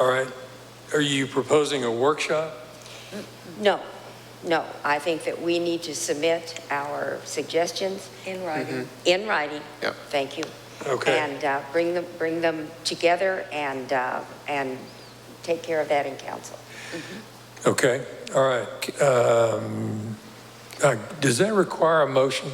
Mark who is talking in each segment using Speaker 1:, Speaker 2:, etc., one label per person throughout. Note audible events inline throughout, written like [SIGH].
Speaker 1: All right. Are you proposing a workshop?
Speaker 2: No, no, I think that we need to submit our suggestions Mm-hmm.
Speaker 3: In writing.
Speaker 2: in writing.
Speaker 4: Yep.
Speaker 2: Thank you.
Speaker 1: Okay.
Speaker 2: And uh, bring them, bring them together and, uh, and take care of that in council.
Speaker 1: Okay, all right. Um, uh, Does that require a motion?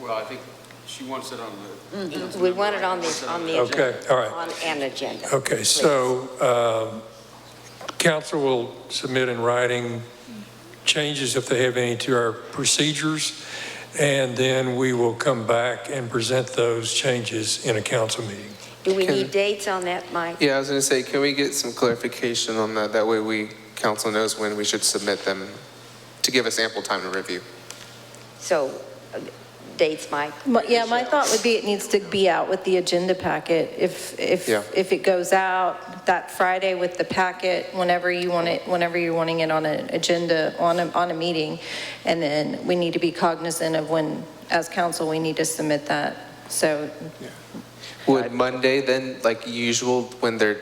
Speaker 5: Well, I think she wants it on the.
Speaker 3: Mm-hmm.
Speaker 5: Councilmember
Speaker 2: Mm-hmm. We want it on
Speaker 5: wants
Speaker 2: the, on the.
Speaker 1: Okay,
Speaker 2: agenda.
Speaker 1: all right.
Speaker 2: On an agenda.
Speaker 1: Okay, so um, council will submit in writing changes if they have any to our procedures, and then we will come back and present those changes in a council meeting.
Speaker 2: Do we
Speaker 4: Can-
Speaker 2: need dates on that, Mike?
Speaker 4: Yeah, I was going to say, can we get some clarification on that? That way we, council knows when we should submit them to give us ample time to review.
Speaker 2: So, uh, dates, Mike?
Speaker 3: My- Yeah, my thought would be it needs to be out with the agenda packet. If, if,
Speaker 4: Yeah.
Speaker 3: if it goes out that Friday with the packet, whenever you want it, whenever you're wanting it on an agenda, on a, on a meeting. And then we need to be cognizant of when, as council, we need to submit that. So
Speaker 4: Would Monday then, like usual, when they're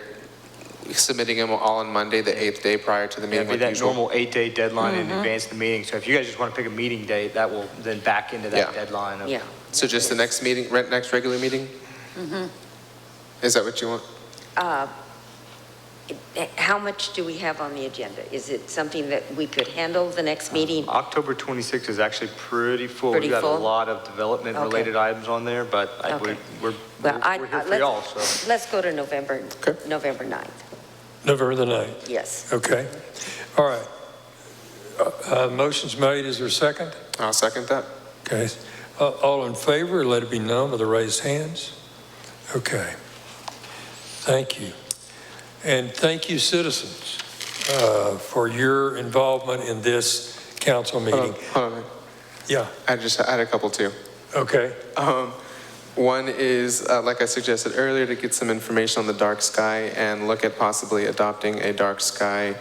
Speaker 4: submitting them all on Monday, the eighth day prior to the
Speaker 6: Yeah,
Speaker 4: meeting
Speaker 6: it'd be
Speaker 4: like
Speaker 6: that
Speaker 4: usual?
Speaker 6: normal eight-day deadline in
Speaker 2: Mm-hmm.
Speaker 6: advance of the meeting. So if you guys just want to pick a meeting date, that will then back into that
Speaker 4: Yeah.
Speaker 6: deadline of
Speaker 2: Yeah.
Speaker 4: So just the next meeting, re- next regular meeting? Mm-hmm. Is that what you want?
Speaker 2: Uh, it- How much do we have on the agenda? Is it something that we could handle the
Speaker 6: Uh,
Speaker 2: next meeting?
Speaker 6: October 26th is actually pretty full.
Speaker 2: Pretty
Speaker 6: We've got a
Speaker 2: full?
Speaker 6: lot of development-related items on there, but I-
Speaker 2: Okay.
Speaker 6: we're, we're
Speaker 2: Well, I-
Speaker 6: we're here
Speaker 2: I-
Speaker 6: for
Speaker 2: let's-
Speaker 6: y'all, so.
Speaker 2: Let's go to November,
Speaker 4: Okay.
Speaker 2: November 9th,
Speaker 1: November the 9th,
Speaker 2: yes.
Speaker 1: okay? All right. Uh, uh, Motion's made, is there a second?
Speaker 4: I'll second that.
Speaker 1: Okay, Uh, all in favor, let it be known with the raised hands. Okay, thank you. And thank you, citizens, uh, for your involvement in this council
Speaker 4: Hold on,
Speaker 1: meeting.
Speaker 4: hold on. a minute.
Speaker 1: Yeah,
Speaker 4: I just, I had a couple too.
Speaker 1: okay,
Speaker 4: Um, One is, uh, like I suggested earlier, to get some information on the dark sky and look at possibly adopting a dark sky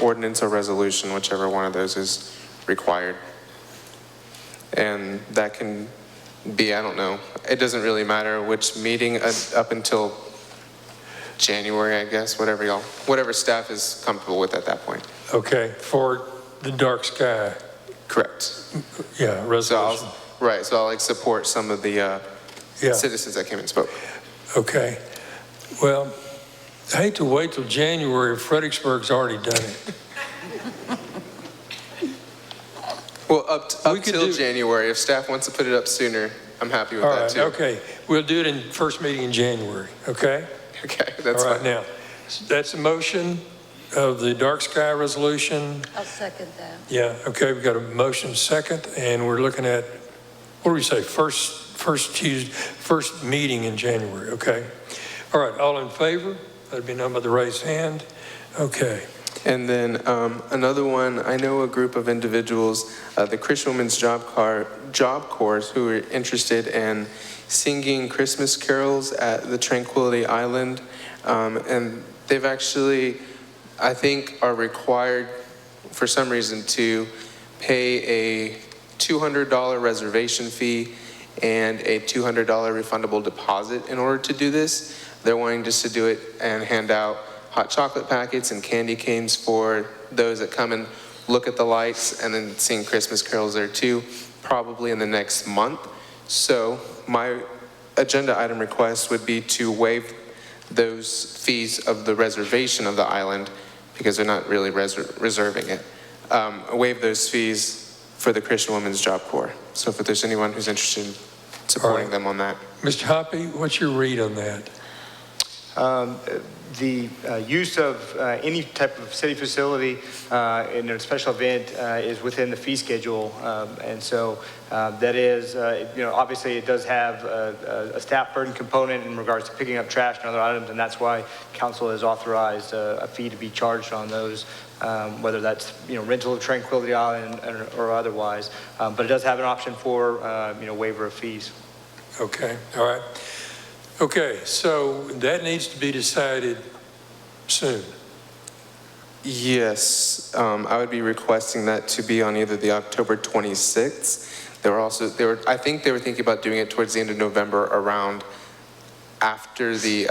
Speaker 4: ordinance or resolution, whichever one of those is required. And that can be, I don't know, it doesn't really matter which meeting uh, up until January, I guess, whatever y'all, whatever staff is comfortable with at that point.
Speaker 1: okay, for the dark sky,
Speaker 4: Correct.
Speaker 1: yeah,
Speaker 4: So
Speaker 1: resolution.
Speaker 4: I'll, right, so I'll like support some of the uh,
Speaker 1: Yeah,
Speaker 4: citizens that came and spoke.
Speaker 1: okay. Well, I hate to wait till January, Fredericksburg's already done it.
Speaker 4: Well, up, t-
Speaker 1: We
Speaker 4: up
Speaker 1: could
Speaker 4: till
Speaker 1: do-
Speaker 4: January, if staff wants to put it up sooner, I'm happy with
Speaker 1: All
Speaker 4: that
Speaker 1: right,
Speaker 4: too.
Speaker 1: okay, we'll do it in first meeting in January, okay?
Speaker 4: [LAUGHS] Okay, that's
Speaker 1: All right,
Speaker 4: fine.
Speaker 1: now, that's a motion of the dark sky resolution.
Speaker 3: I'll second that.
Speaker 1: Yeah, okay, we've got a motion second, and we're looking at, what do we say, first, first Tuesday, first meeting in January, okay? All right, all in favor? That'd be number the raised hand. Okay,
Speaker 4: And then um, another one, I know a group of individuals, uh, the Christian Women's Job Corps, Job Corps, who are interested in singing Christmas carols at the Tranquility Island. Um, and they've actually, I think, are required for some reason to pay a $200 reservation fee and a $200 refundable deposit in order to do this. They're wanting just to do it and hand out hot chocolate packets and candy canes for those that come and look at the lights and then sing Christmas carols there too, probably in the next month. So my agenda item request would be to waive those fees of the reservation of the island because they're not really reser- reserving it. Um, waive those fees for the Christian Women's Job Corps. So if there's anyone who's interested in supporting
Speaker 1: Alright.
Speaker 4: them on that.
Speaker 1: Mr. Hoppy, what's your read on that?
Speaker 6: Um, uh, The uh, use of uh, any type of city facility uh, in a special event uh, is within the fee schedule. um, And so uh, that is, uh, you know, obviously it does have a a- a staff burden component in regards to picking up trash and other items. And that's why council has authorized uh, a fee to be charged on those, um, whether that's, you know, rental of Tranquility Island or- or otherwise. Um, But it does have an option for, uh, you know, waiver of fees.
Speaker 1: Okay, all right. Okay, so that needs to be decided soon.
Speaker 4: Yes, um, I would be requesting that to be on either the October 26th. They were also, they were, I think they were thinking about doing it towards the end of November around after the